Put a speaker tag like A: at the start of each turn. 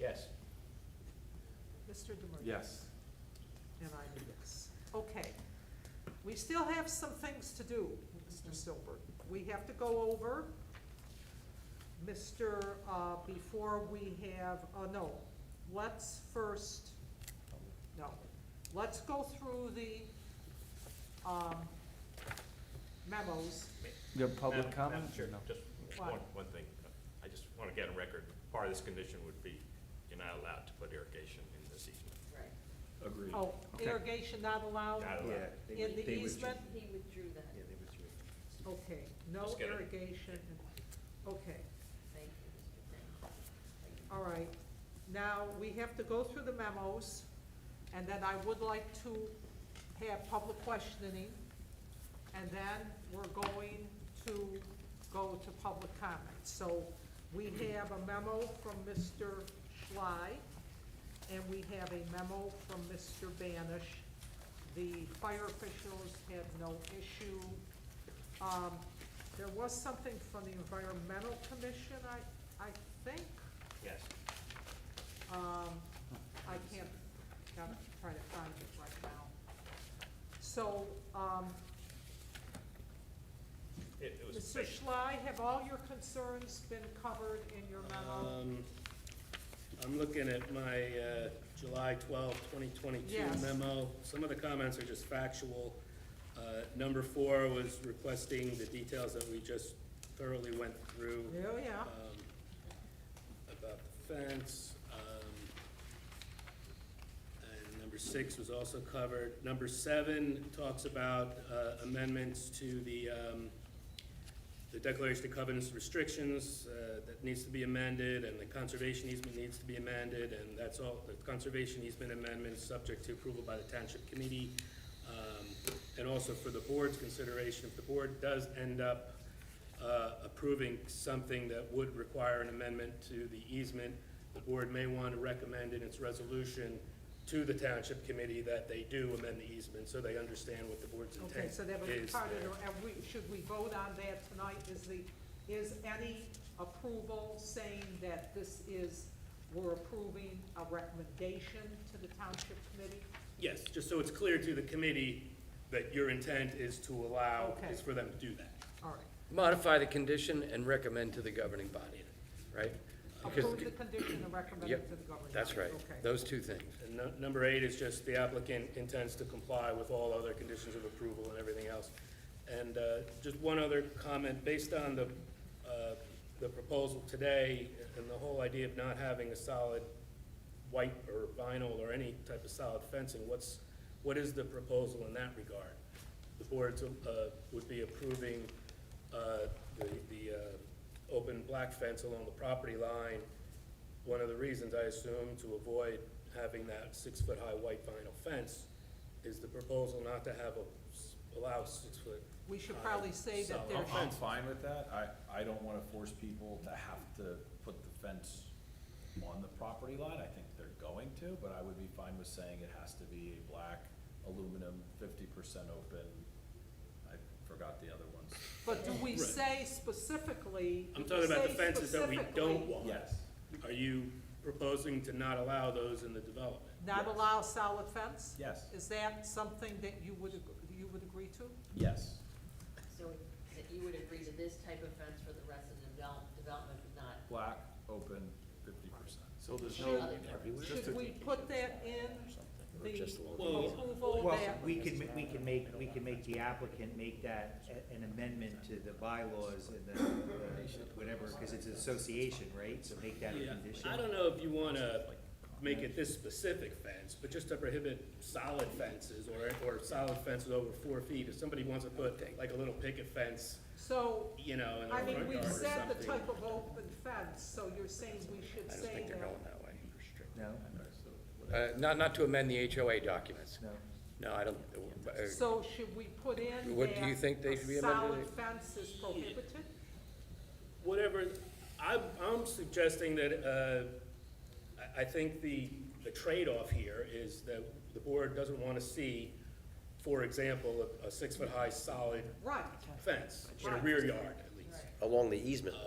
A: Yes.
B: Mr. Demers?
C: Yes.
B: And I'm a yes. Okay. We still have some things to do, Mr. Silbert. We have to go over, Mr., uh, before we have, uh, no, let's first, no, let's go through the, um, memos.
C: You have public
A: Madam-
C: comment?
A: Madam Chair,
C: No.
A: just
B: Why?
A: one, one thing. I just want to get a record. Part of this condition would be you're not allowed to put irrigation in this easement.
D: Right,
E: Agreed.
B: Oh,
C: Okay.
B: irrigation not allowed?
A: Not
E: Yeah.
A: allowed.
E: they
B: In
E: would-
B: the
E: they would-
B: easement?
D: he withdrew that,
E: Yeah, they withdrew. it.
B: Okay, no
A: Just get it.
B: irrigation, okay.
D: thank you, Mr. Thank you.
B: All right, now, we have to go through the memos, and then I would like to have public questioning, and then we're going to go to public comments. So we have a memo from Mr. Schley, and we have a memo from Mr. Banish. The fire officials had no issue. Um, there was something from the environmental commission, I, I think.
A: Yes.
B: Um, I can't, gotta try to find it right now. So, um,
A: It, it was.
B: Mr.
A: based-
B: Schley, have all your concerns been covered in your
A: Uh,
B: memo?
F: Um, I'm looking at my uh, July 12, 2022
B: Yes.
F: memo. Some of the comments are just factual. Uh, Number four was requesting the details that we just thoroughly went through
B: Oh, yeah,
F: um, about the fence. um, And number six was also covered. Number seven talks about uh, amendments to the, um, the declaration of covenants and restrictions uh, that needs to be amended, and the conservation easement needs to be amended, and that's all, the conservation easement amendment is subject to approval by the township committee. Um, And also for the board's consideration, if the board does end up uh, approving something that would require an amendment to the easement, the board may want to recommend in its resolution to the township committee that they do amend the easement, so they understand what the board's intent
B: okay,
F: is
B: so that was part of,
F: there.
B: the- and we, should we vote on that tonight? Is the, is any approval saying that this is, we're approving a recommendation to the township committee?
F: Yes, just so it's clear to the committee that your intent is to allow,
B: Okay.
F: is for them to do that.
B: All right,
G: modify the condition and recommend to the governing body, right? Because,
B: approve the condition and recommend it
G: Yep,
B: to the governing
G: that's
B: body.
G: right,
B: Okay,
G: those two things.
F: And nu- number eight is just the applicant intends to comply with all other conditions of approval and everything else. And uh, just one other comment, based on the, uh, the proposal today and the whole idea of not having a solid white or vinyl or any type of solid fencing, what's, what is the proposal in that regard? The boards uh, would be approving uh, the, the uh, open black fence along the property line. One of the reasons, I assume, to avoid having that six-foot-high white vinyl fence is the proposal not to have a, s- allow six-foot.
B: we should
F: Uh,
B: probably say
F: Solid.
B: that
F: They're
E: I'm,
B: there's.
E: I'm fine with that. I, I don't wanna force people to have to put the fence on the property line. I think they're going to, but I would be fine with saying it has to be a black aluminum, fifty percent open. I forgot the other ones.
B: But do we
F: Right.
B: say specifically?
F: I'm talking about the
B: say
F: fences that we don't
B: specifically
F: want.
E: Yes,
F: Are you proposing to not allow those in the development?
B: Not
E: Yes.
B: allow solid fence?
E: yes,
B: Is that something that you would, ag- you would agree to?
E: yes.
D: So that you would agree to this type of fence for the rest of the develop, development, but not
E: Black, open, fifty percent.
C: So there's
D: the
C: no,
D: other areas?
B: Should we put that in the
F: Well-
B: approval
H: Well,
B: that,
H: we could, ma- we can make, we can make the applicant make that a- an amendment to the bylaws and the, the- whatever, because it's an association, right? So make that a
F: Yeah,
H: condition.
F: I don't know if you wanna make it this specific fence, but just to prohibit solid fences or, or solid fences over four feet. If somebody wants to put like a little picket fence,
B: so,
F: you know, in
B: I
F: their
B: mean,
F: front
B: we
F: yard or
B: said the
F: something.
B: type of open fence, so you're saying we should say that.
G: that way.
H: No,
G: Uh, not, not to amend the HOA documents.
H: no.
G: No, I don't, uh,
B: So should we put in
G: What do you
B: that
G: think they
B: a
G: should be amended?
B: Solid fence is prohibited?
F: Whatever, I'm, I'm suggesting that, uh, I, I think the, the trade-off here is that the board doesn't wanna see, for example, a, a six-foot-high solid
B: Right.
F: fence in a rear yard at least.
G: along the easement